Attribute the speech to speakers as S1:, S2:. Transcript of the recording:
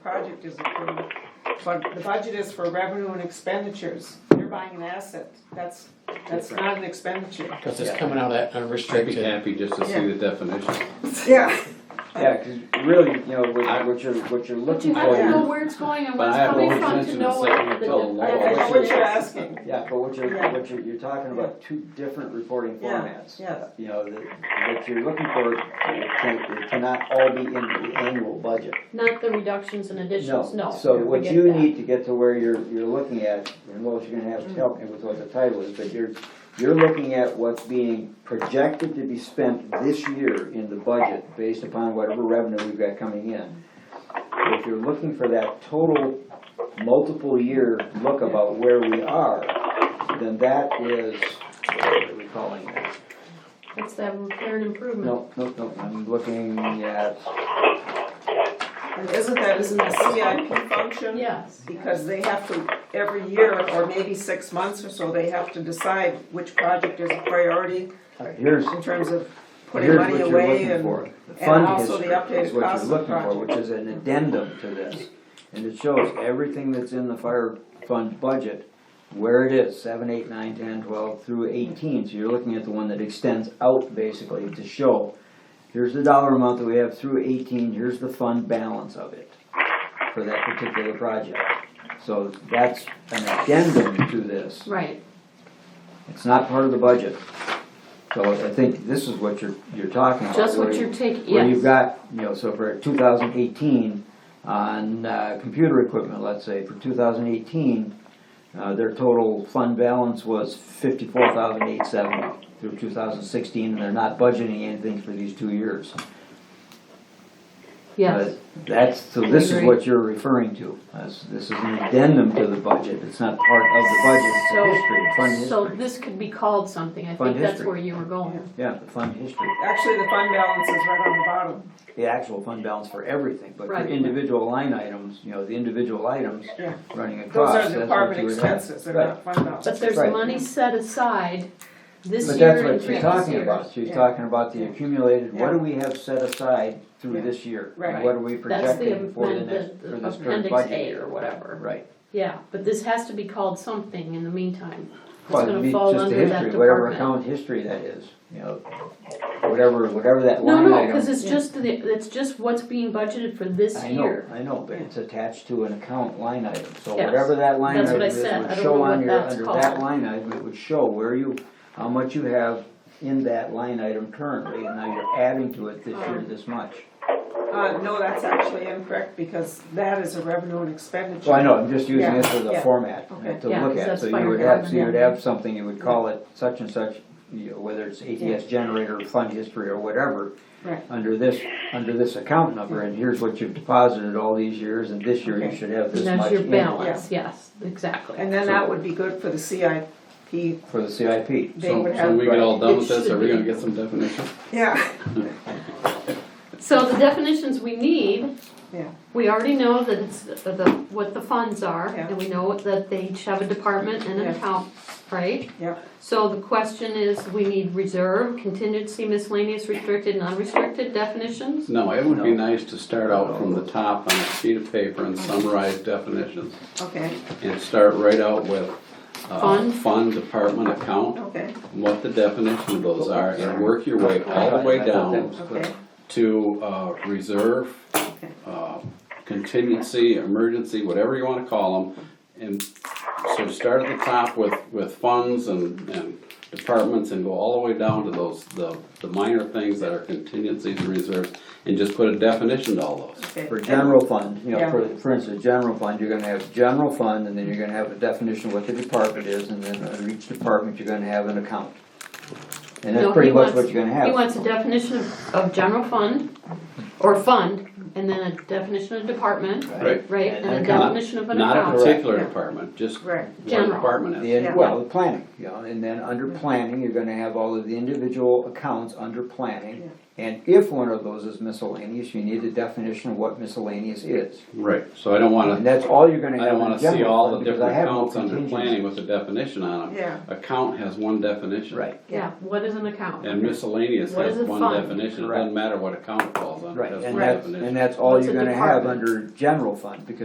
S1: project is approved, but the budget is for revenue and expenditures. You're buying an asset, that's, that's not an expenditure.
S2: Because it's coming out of that
S3: I'd be
S2: unrestricted.
S3: happy just to see the definition.
S1: Yeah.
S4: Yeah, because really, you know, what, what you're, what you're
S5: But
S4: looking
S5: you have to
S4: for,
S5: know where it's going and
S3: But
S5: where it's
S3: I have
S5: coming
S3: no
S5: from to
S3: intention of
S5: know
S3: saying
S5: what the
S3: until law.
S1: I know
S5: definition
S1: what you're
S5: is.
S1: asking,
S4: yeah, but what you're,
S1: Yeah.
S4: what you're, you're talking about two different reporting
S1: Yeah,
S4: formats.
S1: yes.
S4: You know, the, what you're looking for, it can, it cannot all be in the annual budget.
S5: Not the reductions and additions, no.
S4: So
S5: we
S4: what
S5: get
S4: you
S5: that.
S4: need to get to where you're, you're looking at, and Lois, you're gonna have to
S5: Mm.
S4: help me with what the title is, but you're, you're looking at what's being projected to be spent this year in the budget, based upon whatever revenue we've got coming in. If you're looking for that total multiple year look about where we are, then that is, what are we calling that?
S5: It's that repair and improvement.
S4: No, no, no, I'm looking at,
S1: and isn't that, isn't the CIP function?
S5: Yes.
S1: Because they have to, every year, or maybe six months or so, they have to decide which project is a priority
S4: here's,
S1: in terms of putting
S4: Here's
S1: money
S4: what you're
S1: away
S4: looking
S1: and.
S4: for.
S1: and
S4: Fund
S1: also the
S4: history
S1: updated
S4: is what
S1: cost
S4: you're
S1: of the
S4: looking for,
S1: project.
S4: which is an addendum to this. And it shows everything that's in the fire fund budget, where it is, seven, eight, nine, ten, twelve, through eighteen. So you're looking at the one that extends out basically to show, here's the dollar amount that we have through eighteen, here's the fund balance of it for that particular project. So that's an addendum to this.
S5: Right,
S4: It's not part of the budget. So I think this is what you're, you're talking about.
S5: just what
S4: where you-
S5: you're taking,
S4: where you've
S5: yes.
S4: got, you know, so for 2018, on uh, computer equipment, let's say, for 2018, uh, their total fund balance was 54,870 through 2016, and they're not budgeting anything for these two years.
S5: Yes,
S4: But That's, so this is
S5: Agree.
S4: what you're referring to. This this is an addendum to the budget, it's not part of the budget, it's a
S5: So-
S4: history, fund
S5: so
S4: history.
S5: this could be called something, I
S4: Fund
S5: think that's
S4: history.
S5: where you were going.
S4: Yeah, the fund history.
S1: Actually, the fund balance is right on the bottom.
S4: the actual fund balance for everything, but for
S5: Right.
S4: individual line items, you know, the individual items
S1: Yeah.
S4: running
S1: Those
S4: across.
S1: are
S4: that's what you
S1: department
S4: would have.
S1: expenses, they're
S4: Right.
S1: not fund balance.
S5: But there's
S4: Right.
S5: money set aside this
S4: But that's
S5: year and
S4: what she's
S5: previous
S4: talking
S5: years.
S4: about, she's
S1: Yeah.
S4: talking about the accumulated, what
S1: Yeah.
S4: do we have set aside through
S1: Yeah.
S4: this year?
S1: Right.
S4: And What are we
S5: That's the
S4: projecting for the next,
S5: amendment,
S4: for
S5: the
S4: this current
S5: appendix
S4: budget
S5: A
S4: year?
S5: or whatever.
S4: Right.
S5: Yeah, but this has to be called something in the meantime. It's
S4: Well, it'd
S5: gonna
S4: be
S5: fall
S4: just the
S5: under that
S4: history, whatever
S5: department.
S4: account history that is, you know, whatever, whatever that
S5: No,
S4: line
S5: no,
S4: item.
S5: because it's
S1: Yeah.
S5: just, the it's just what's being budgeted for this
S4: I know,
S5: year.
S4: I know, but
S1: Yeah.
S4: it's attached to an account line item, so
S5: Yes.
S4: whatever that line
S5: That's
S4: item
S5: what I
S4: is,
S5: said. I
S4: would
S5: don't
S4: show
S5: know
S4: on
S5: what
S4: your,
S5: that's
S4: under that
S5: called.
S4: line item, it would show where you, how much you have in that line item currently, and now you're adding to it this year
S1: Um.
S4: this much.
S1: Uh, no, that's actually incorrect, because that is a revenue and expenditure.
S4: So I know, I'm just using
S1: Yeah,
S4: this as a
S1: yeah.
S4: format uh,
S1: Okay.
S4: to
S5: Yeah,
S4: look
S5: 'cause
S4: at,
S5: that's
S4: so
S5: fire
S4: you would have, so you would
S5: department.
S4: have something, you would call it such and such, you know, whether it's ATS generator, fund history, or whatever.
S1: Right.
S4: Under this, under this account number, and here's what you've deposited all these years, and this year
S1: Okay.
S4: you should have this
S5: And
S4: much in
S5: that's your
S4: it.
S5: balance, yes, exactly.
S1: And then that would be good for the CIP.
S4: for the CIP.
S1: They
S4: So
S1: would
S3: When
S1: have.
S3: we get all done with this,
S5: It
S3: are we gonna
S5: should be.
S3: get some definition?
S1: Yeah,
S5: So the definitions we need,
S1: Yeah.
S5: we already know that it's the, the- what the funds are,
S1: Yeah.
S5: and we know that they each have a department and an
S1: Yeah.
S5: account, right?
S1: Yeah.
S5: So the question is, we need reserve, contingency, miscellaneous, restricted, and unrestricted definitions?
S3: No, it would be
S4: No.
S3: nice to start out from the top on a sheet of paper and summarize definitions.
S1: okay,
S3: And start right out with,
S4: Uh-huh.
S3: uh,
S5: Fund.
S3: fund, department, account,
S1: okay,
S3: what the definition of those are, and work your way all the way
S4: I thought that
S3: down
S4: was clear.
S1: okay,
S3: to, uh, reserve,
S1: okay.
S3: uh, contingency, emergency, whatever you wanna call them. And so start at the top with, with funds and, and departments and go all the way down to those, the, the minor things that are contingencies and reserves. And just put a definition to all those.
S1: okay.
S4: For general fund, you know,
S1: Yeah.
S4: for, for instance, general fund, you're gonna have general fund, and then you're gonna have a definition of what the department is, and then under each department, you're gonna have an account. And
S5: No,
S4: that's
S5: he
S4: pretty much what
S5: wants-
S4: you're gonna
S5: He
S4: have.
S5: wants a definition of, of general fund, or fund, and then a definition of department,
S3: Right.
S5: right,
S4: And
S5: and a
S4: account.
S5: definition of an
S3: Not a
S5: account.
S3: particular
S1: Yeah.
S3: department, just
S1: Right.
S3: what
S5: General.
S3: department is.
S4: And, well, the planning, you know, and then under planning, you're gonna have all of the individual accounts under planning. And if one of those is miscellaneous, you need a definition of what miscellaneous is.
S3: Right, so I don't wanna.
S4: And that's all you're gonna
S3: I
S4: have
S3: don't
S4: in
S3: wanna see
S4: general
S3: all
S4: fund,
S3: the
S4: because I
S3: different
S4: have no
S3: accounts under
S4: contingency.
S3: planning with a definition on them.
S1: Yeah.
S3: Account has one definition.
S4: Right,
S5: Yeah, what is an account?
S3: And miscellaneous
S5: What
S3: has
S5: is a
S3: one
S5: fund?
S3: definition, it
S4: Correct.
S3: doesn't matter what account it falls under,
S4: right,
S3: it has
S4: and
S3: one
S4: that's,
S3: definition.
S4: and that's all
S5: What's
S4: you're
S5: a
S4: gonna have
S5: department?
S4: under general fund, because